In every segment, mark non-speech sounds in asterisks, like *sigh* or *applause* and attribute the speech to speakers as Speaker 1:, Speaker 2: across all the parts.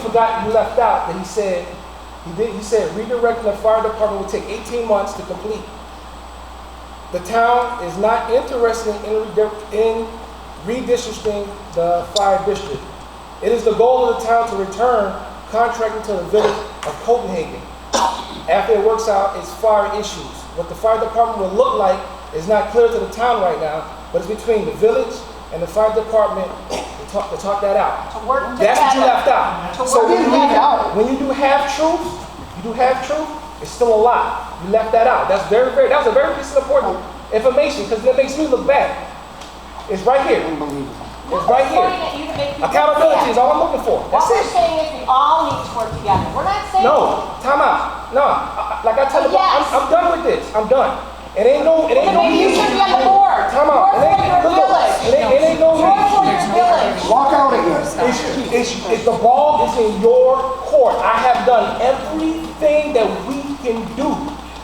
Speaker 1: forgot, you left out, that he said, he did, he said redirecting the fire department will take eighteen months to complete. The town is not interested in, redi- in redistricting the fire district. It is the goal of the town to return contracting to the village of Copenhagen after it works out its fire issues. What the fire department will look like is not clear to the town right now, but it's between the village and the fire department to talk, to talk that out.
Speaker 2: To work
Speaker 1: That's what you
Speaker 2: together.
Speaker 1: left out.
Speaker 2: To
Speaker 1: So
Speaker 2: work
Speaker 1: when you,
Speaker 2: together.
Speaker 1: when you do half truth, you do half truth, it's still a lie. You left that out. That's very, very, that was a very piece of important information because it makes me look bad. It's right here. It's right here. Accountability is all I'm looking for.
Speaker 2: What
Speaker 1: That's
Speaker 2: we're
Speaker 1: it.
Speaker 2: saying is we all need to work together. We're not saying.
Speaker 1: No, time out. No, I- I- like I tell the, I'm,
Speaker 2: Yes.
Speaker 1: I'm done with this. I'm done. It ain't no, it ain't
Speaker 2: Then
Speaker 1: no
Speaker 2: maybe you
Speaker 1: need.
Speaker 2: should be on the board.
Speaker 1: Time out. It ain't,
Speaker 2: Work for
Speaker 1: look,
Speaker 2: your
Speaker 1: look, it
Speaker 2: village.
Speaker 1: ain't, it ain't no
Speaker 2: Work
Speaker 1: need.
Speaker 2: for your village.
Speaker 3: Walk out again.
Speaker 1: It's, it's, it's, the ball is in your court. I have done everything that we can do.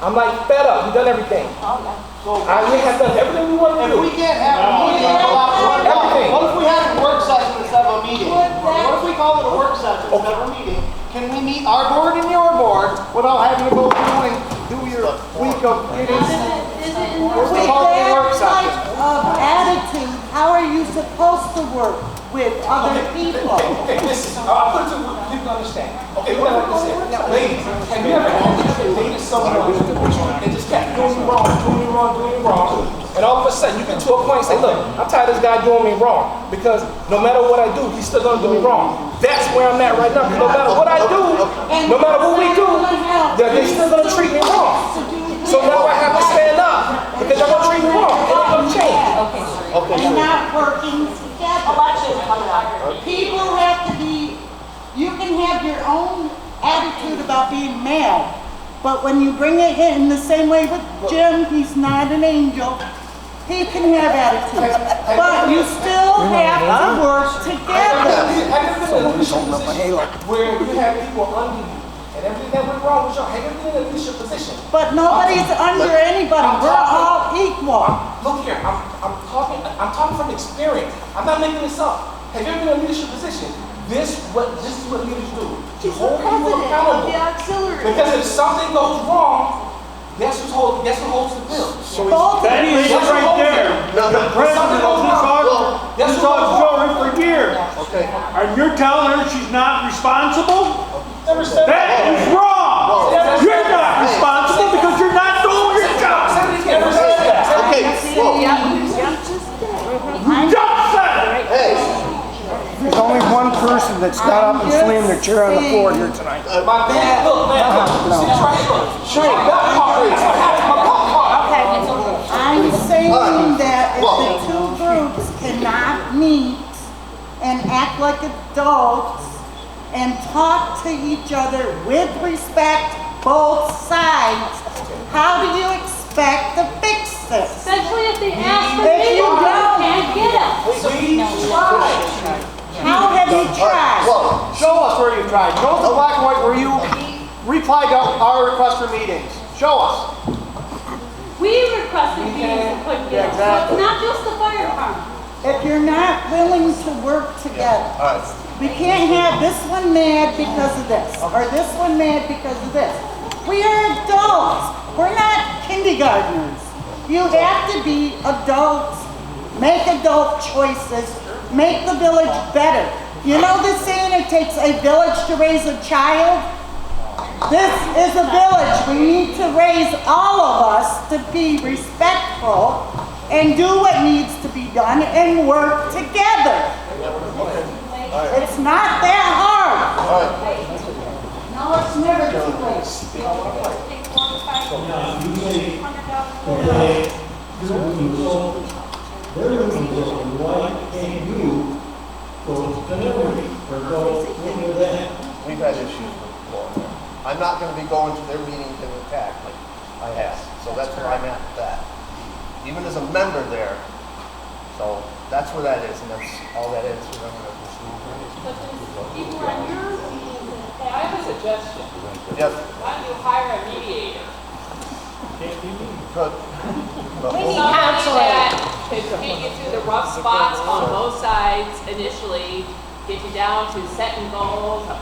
Speaker 1: I'm like fed up. We've done everything. I, we have done everything we want to
Speaker 4: If we
Speaker 1: do.
Speaker 4: can't have a meeting, what
Speaker 1: Everything.
Speaker 4: what if we had a work session instead of a meeting? What if we call it a work session instead of a meeting? Can we meet our board and your board without having to go through and do your week of meetings?
Speaker 5: With that type of attitude, how are you supposed to work with other people?
Speaker 1: Okay, listen, I- I'll put it to you, you can understand. Okay, what I understand. Ladies, have you ever dated someone and just kept doing you wrong, doing you wrong, doing you wrong? And all of a sudden, you get to a point and say, look, I'm tired of this guy doing me wrong because no matter what I do, he's still gonna do me wrong. That's where I'm at right now. 'cause No matter what I do, no matter what we do, they're they're still gonna treat me wrong. So now I have to stand up because they're gonna treat me wrong. and It's gonna change.
Speaker 5: And not working together.
Speaker 2: Election's coming up.
Speaker 5: People have to be, you can have your own attitude about being mad, but when you bring it in the same way with Jim, he's not an angel. He can have attitude, but you still have to work together.
Speaker 1: Where you have people under you and everything that went wrong with y'all, have you been in a leadership position?
Speaker 5: But nobody's under anybody, we're all equal.
Speaker 1: Look here, I'm, I'm talking, I'm talking from experience. I'm not making this up. Have you ever been in a leadership position? This what this is what leaders do. You hold people accountable.
Speaker 5: auxiliary.
Speaker 1: Because if something goes wrong, guess who's hold, guess who holds the bill?
Speaker 5: Both of
Speaker 6: That
Speaker 5: you.
Speaker 6: is right there. The president of this office, this office over for years. And you're telling her she's not responsible?
Speaker 1: Never said
Speaker 6: That is wrong. You're not responsible because you're not doing your job.
Speaker 1: Somebody never said that.
Speaker 3: Okay, whoa,
Speaker 6: You just said it.
Speaker 3: hey,
Speaker 7: There's only one person that's got up and slammed their chair on the floor here tonight.
Speaker 1: My man, look, man, look, see this right here? Sure. My gut heart is, I have my gut heart.
Speaker 5: I'm saying that if the two groups cannot meet and act like adults and talk to each other with respect, both sides, how do you expect to fix this?
Speaker 8: Especially if they ask for
Speaker 5: If
Speaker 8: me,
Speaker 5: you
Speaker 8: you
Speaker 5: don't-
Speaker 8: can't get it.
Speaker 5: How have you tried?
Speaker 3: whoa.
Speaker 4: Show us where you tried. Show us the black and white where you replied to our request for meetings. Show us.
Speaker 8: We requested meetings and couldn't get it, so it's not just the fire department.
Speaker 5: If you're not willing to work together,
Speaker 3: All right,
Speaker 5: we can't have this one mad because of this, or this one mad because of this. We are adults, we're not kindergartners. You have to be adults, make adult choices, make the village better. You know the saying, it takes a village to raise a child? This is a village, we need to raise all of us to be respectful and do what needs to be done and work together. It's not that hard. No, it's never too late.
Speaker 8: Take forty-five, hundred dollars.
Speaker 3: we've had issues with the law. I'm not gonna be going to their meetings and attack like I have, so that's where I'm at with that. Even as a member there, so that's where that is, and that's all that is, we're not gonna pursue.
Speaker 8: But there's people on your meetings that
Speaker 9: I have a suggestion.
Speaker 3: Yes,
Speaker 9: Why don't you hire a mediator?
Speaker 3: good. *laughs*
Speaker 9: Somebody that can get you through the rough spots on both sides initially, get you down to setting goals, a